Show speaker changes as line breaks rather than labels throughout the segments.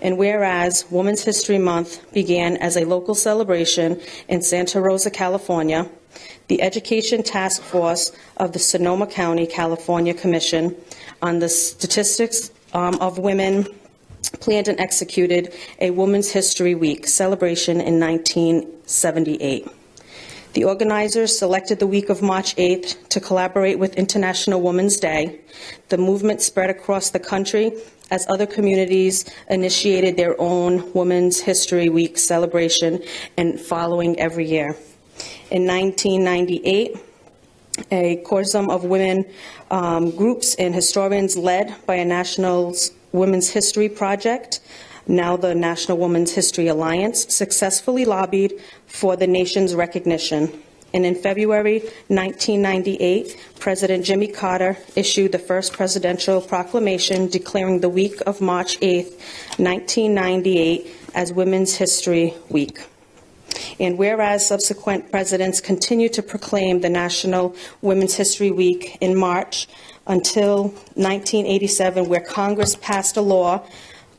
And whereas Women's History Month began as a local celebration in Santa Rosa, California, the Education Task Force of the Sonoma County, California Commission on the Statistics um, of Women planned and executed a Women's History Week celebration in 1978. The organizers selected the week of March 8th to collaborate with International Women's Day. The movement spread across the country as other communities initiated their own Women's History Week celebration and following every year. In 1998, a consortium of women um, groups and historians led by a national women's history project, now the National Women's History Alliance, successfully lobbied for the nation's recognition. And in February 1998, President Jimmy Carter issued the first presidential proclamation declaring the week of March 8, 1998, as Women's History Week. And whereas subsequent presidents continued to proclaim the National Women's History Week in March until 1987, where Congress passed a law,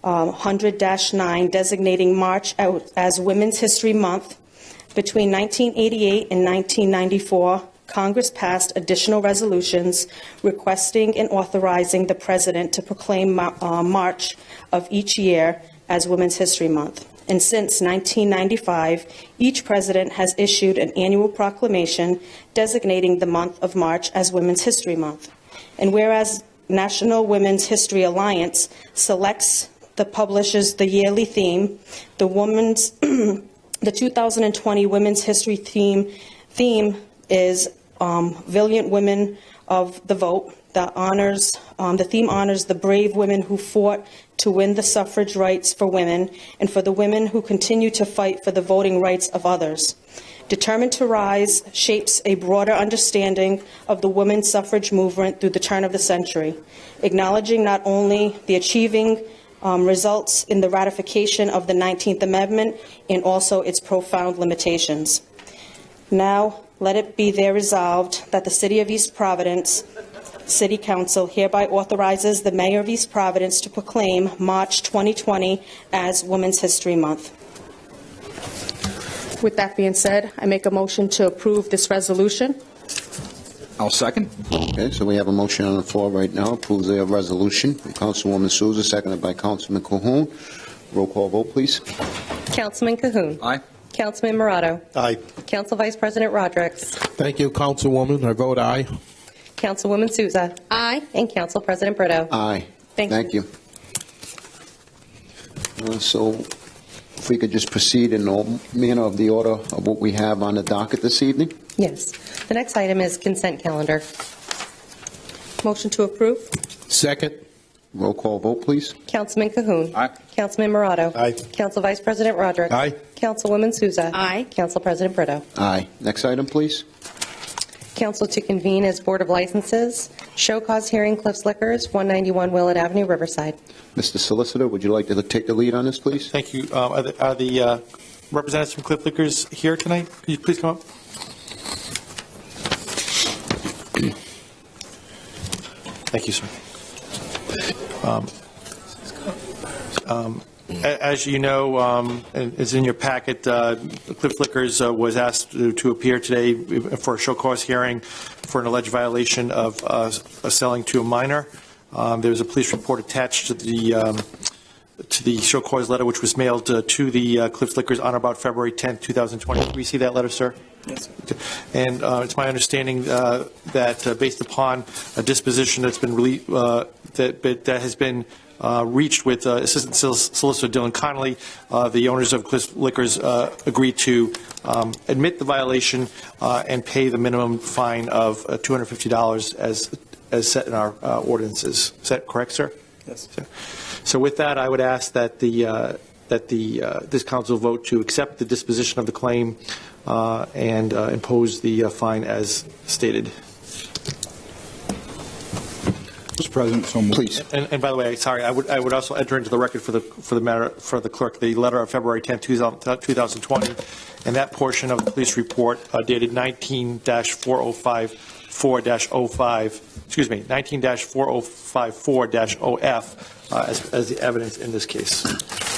um, 100-9, designating March out as Women's History Month, between 1988 and 1994, Congress passed additional resolutions requesting and authorizing the president to proclaim Ma- uh, March of each year as Women's History Month. And since 1995, each president has issued an annual proclamation designating the month of March as Women's History Month. And whereas National Women's History Alliance selects that publishes the yearly theme, the women's the 2020 Women's History theme theme is um, "Valiant Women of the Vote." That honors um, the theme honors the brave women who fought to win the suffrage rights for women and for the women who continue to fight for the voting rights of others. Determined to Rise shapes a broader understanding of the women's suffrage movement through the turn of the century, acknowledging not only the achieving um, results in the ratification of the 19th Amendment and also its profound limitations. Now, let it be there resolved that the City of East Providence City Council hereby authorizes the Mayor of East Providence to proclaim March 2020 as Women's History Month. With that being said, I make a motion to approve this resolution.
I'll second.
Okay, so we have a motion on the floor right now, approves the resolution from Councilwoman Souza, seconded by Councilman Cahoon. Roll call vote, please.
Councilman Cahoon.
Aye.
Councilman Morato.
Aye.
Council Vice President Rodrick.
Thank you, Councilwoman. I vote aye.
Councilwoman Souza. Aye. And Council President Brito.
Aye.
Thank you.
Uh, So if we could just proceed in the manner of the order of what we have on the docket this evening?
Yes. The next item is consent calendar.
Motion to approve?
Second.
Roll call vote, please.
Councilman Cahoon.
Aye.
Councilman Morato.
Aye.
Council Vice President Rodrick.
Aye.
Councilwoman Souza.
Aye.
Council President Brito.
Aye. Next item, please.
Council to convene as Board of Licenses, show cause hearing Cliffs Liquors, 191 Willard Avenue, Riverside.
Mr. Solicitor, would you like to take the lead on this, please?
Thank you. Uh, Are the- are the uh, representatives from Cliff Liquors here tonight? Could you please come up? Thank you, sir. Um, um, a- As you know, um, and it's in your packet, uh, Cliff Liquors uh, was asked to to appear today for a show cause hearing for an alleged violation of uh, selling to a minor. Um, There was a police report attached to the um, to the show cause letter, which was mailed uh, to the uh, Cliffs Liquors on or about February 10th, 2020. We see that letter, sir? Yes. And uh, it's my understanding uh, that uh, based upon a disposition that's been, rele- uh, that but that has been uh, reached with uh, Assistant Sol- Solicitor Dylan Connolly, uh, the owners of Cliffs Liquors uh, agreed to um, admit the violation uh, and pay the minimum fine of uh, $250 as as set in our uh, ordinances. Is that correct, sir? Yes. So with that, I would ask that the, uh, that the, uh, this council vote to accept the disposition of the claim uh, and uh, impose the uh, fine as stated.
Mr. President, so moved.
Please.
And, and by the way, sorry, I would, I would also enter into the record for the, for the matter, for the clerk, the letter of February 10th, 2020, and that portion of the police report uh, dated 19-4054-05, excuse me, 19-4054-OF, uh, as, as the evidence in this case.